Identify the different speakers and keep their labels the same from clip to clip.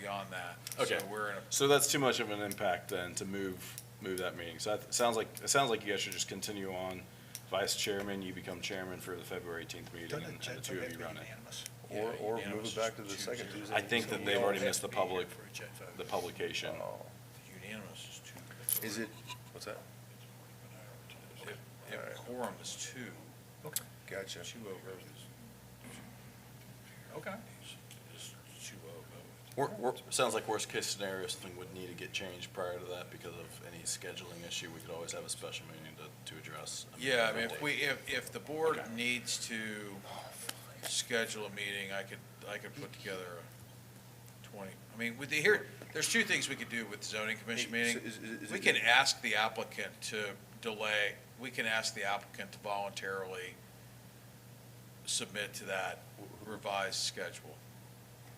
Speaker 1: beyond that.
Speaker 2: Okay.
Speaker 1: So we're in a,
Speaker 2: So that's too much of an impact then to move, move that meeting. So that sounds like, it sounds like you guys should just continue on. Vice chairman, you become chairman for the February eighteenth meeting and the two of you run it.
Speaker 3: Or,
Speaker 1: Yeah,
Speaker 3: or move
Speaker 1: unanimous
Speaker 3: it back to
Speaker 1: is
Speaker 3: the
Speaker 1: two
Speaker 3: second
Speaker 1: zero.
Speaker 3: Tuesday.
Speaker 2: I think that
Speaker 3: in
Speaker 2: they've
Speaker 3: July.
Speaker 2: already missed the public, the
Speaker 1: the
Speaker 2: publication.
Speaker 3: Oh.
Speaker 1: unanimous is two.
Speaker 3: Is it, what's that?
Speaker 1: If, if quorum is two,
Speaker 3: Gotcha.
Speaker 1: two oh vote is. Okay. Is two oh vote.
Speaker 2: Wor- wor- sounds like worst case scenario, something would need to get changed prior to that because of any scheduling issue. We could always have a special meeting to, to address.
Speaker 1: Yeah, I mean, if we, if, if the board
Speaker 2: Okay.
Speaker 1: needs to schedule a meeting, I could, I could put together a twenty. I mean, with the, here, there's two things we could do with zoning commission
Speaker 3: Hey, so
Speaker 1: meeting.
Speaker 3: is- is- is
Speaker 1: We
Speaker 3: it-
Speaker 1: can ask the applicant to delay, we can ask the applicant to voluntarily submit to that revised schedule.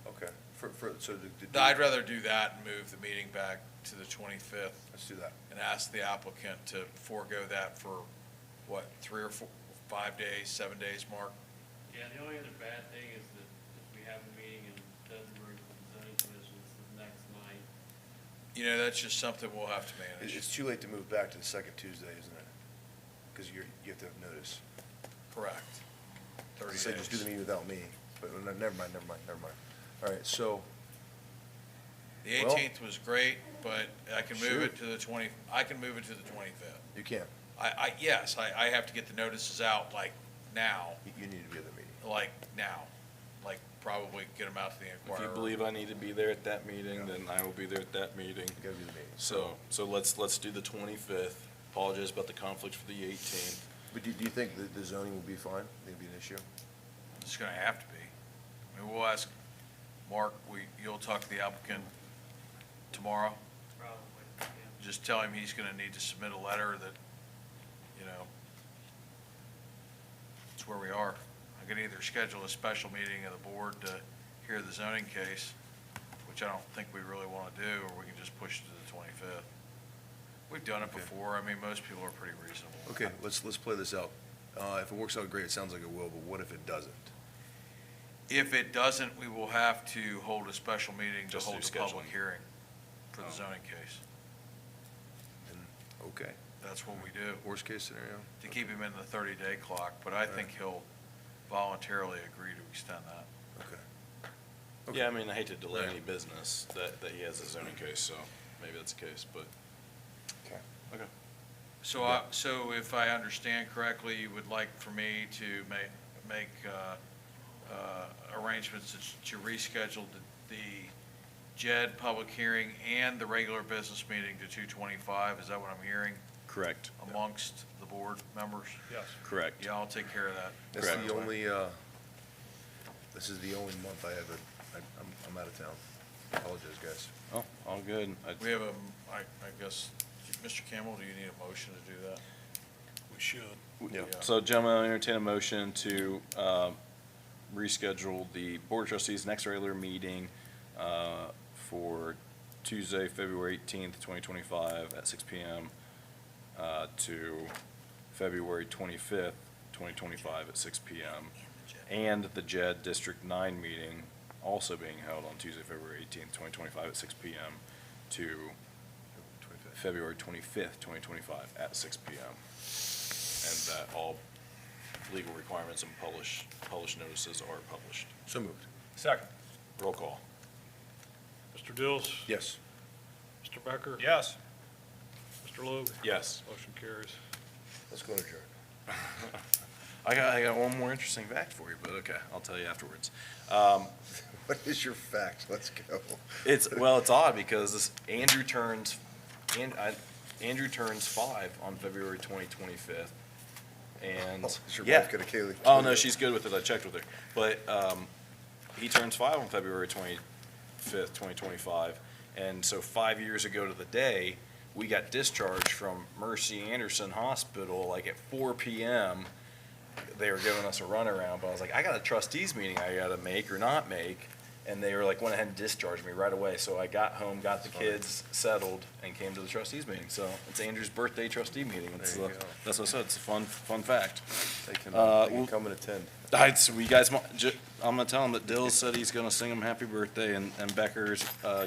Speaker 3: Okay, for, for, so to- to. do-
Speaker 1: I'd rather do that and move the meeting back to the twenty-fifth
Speaker 3: Let's do that.
Speaker 1: and ask the applicant to forego that for, what, three or four, five days, seven days, Mark?
Speaker 4: Yeah, the only other bad thing is that if we have a meeting and it doesn't work with the zoning commission, it's the next night.
Speaker 1: You know, that's just something we'll have to
Speaker 3: It's,
Speaker 1: manage.
Speaker 3: it's too late to move back to the second Tuesday, isn't it? Because you're, you have to have notice.
Speaker 1: Correct.
Speaker 3: I
Speaker 1: Thirty
Speaker 3: said just do the
Speaker 1: days.
Speaker 3: meeting without me, but no, never mind, never mind, never mind. All right, so,
Speaker 1: The
Speaker 3: well-
Speaker 1: eighteenth was great, but I can move it
Speaker 3: Shoot.
Speaker 1: to the twenty, I can move it to the twenty-fifth.
Speaker 3: you can,
Speaker 1: I, I, yes, I, I have to get the notices out like now,
Speaker 3: you, you need to be at the meeting.
Speaker 1: like now, like probably get them out to the
Speaker 2: If you
Speaker 1: inquirer.
Speaker 2: believe I need to be there at that meeting, then I will be there at that meeting.
Speaker 3: You gotta be at the meeting.
Speaker 2: So, so let's, let's do the twenty-fth. Apologize about the conflict for the eighteenth.
Speaker 3: But do, do you think that the zoning will be fine? Think it'll be an issue?
Speaker 1: It's gonna have to be. I mean, we'll ask, Mark, we, you'll talk to the applicant tomorrow?
Speaker 4: Probably, yeah.
Speaker 1: Just tell him he's gonna need to submit a letter that, you know, it's where we are. I can either schedule a special meeting of the board to hear the zoning case, which I don't think we really wanna do, or we can just push it to the twenty-fifth. We've done it
Speaker 3: Okay.
Speaker 1: before. I mean, most people are pretty reasonable.
Speaker 3: Okay, let's, let's play this out. Uh, if it works out great, it sounds like it will, but what if it doesn't?
Speaker 1: If it doesn't, we will have to hold a special meeting to
Speaker 2: Just do
Speaker 1: hold a public
Speaker 2: scheduling.
Speaker 1: hearing for the
Speaker 2: Oh.
Speaker 1: zoning case.
Speaker 3: Then, okay,
Speaker 1: That's what we do,
Speaker 3: worst case scenario?
Speaker 1: to keep him in the thirty-day clock, but I think he'll voluntarily agree to extend that.
Speaker 3: Okay.
Speaker 2: Yeah, I mean, I hate to delay
Speaker 1: Right.
Speaker 2: any business that, that he has a zoning case, so maybe that's the case, but.
Speaker 3: Okay.
Speaker 2: Okay.
Speaker 1: So I, so if I understand correctly, you would like for me to ma- make, uh, uh, arrangements to- to reschedule the, the JED public hearing and the regular business meeting to two twenty-five, is that what I'm hearing
Speaker 2: Correct,
Speaker 1: amongst the board members? Yes.
Speaker 2: correct.
Speaker 1: Yeah, I'll take care of that.
Speaker 3: That's
Speaker 2: Correct.
Speaker 3: the only, uh, this is the only month I have a, I- I'm, I'm out of town. Apologize, guys.
Speaker 2: Oh, all good. I-
Speaker 1: We have a, I, I guess, Mr. Campbell, do you need a motion to do that?
Speaker 5: We should.
Speaker 3: Yeah.
Speaker 2: So gentlemen, I'll entertain a motion to uh, reschedule the Board of Trustees' next regular meeting uh, for Tuesday, February eighteenth, twenty twenty-five at six P M. uh, to February twenty-fifth, twenty twenty-five at six P M. And the JED District Nine meeting also being held on Tuesday, February eighteenth, twenty twenty-five at six P M. to February twenty-fifth, twenty twenty-five at six P M and that all legal requirements and publish, published notices are published.
Speaker 3: So moved.
Speaker 5: Second.
Speaker 2: Roll call.
Speaker 5: Mr. Dills?
Speaker 3: Yes.
Speaker 5: Mr. Becker?
Speaker 2: Yes.
Speaker 5: Mr. Logue?
Speaker 2: Yes.
Speaker 5: Motion carries.
Speaker 3: Let's go to adjourn.
Speaker 2: I got, I got one more interesting fact for you, but okay, I'll tell you afterwards. Um,
Speaker 3: What is your fact? Let's go.
Speaker 2: it's, well, it's odd because this, Andrew turns, and, I, Andrew turns five on February twenty twenty-fifth. And,
Speaker 3: Oh, is your
Speaker 2: yeah.
Speaker 3: wife gonna kill you?
Speaker 2: Oh, no, she's good with it. I checked with her. But, um, he turns five on February twenty-fifth, twenty twenty-five. And so five years ago to the day, we got discharged from Mercy Anderson Hospital like at four PM. They were giving us a runaround, but I was like, I got a trustees meeting I gotta make or not make. And they were like, went ahead and discharged me right away. So I got home, got the
Speaker 3: That's fine.
Speaker 2: kids settled, and came to the trustees meeting. So it's Andrew's birthday trustee meeting. It's
Speaker 3: There you
Speaker 2: the-
Speaker 3: go.
Speaker 2: That's what I said, it's a fun, fun fact.
Speaker 3: They can,
Speaker 2: Uh,
Speaker 3: they can
Speaker 2: we'll-
Speaker 3: come and attend.
Speaker 2: I, so you guys, mo- ju- I'm gonna tell him that Dill said he's gonna sing him happy birthday, and, and Becker's, uh,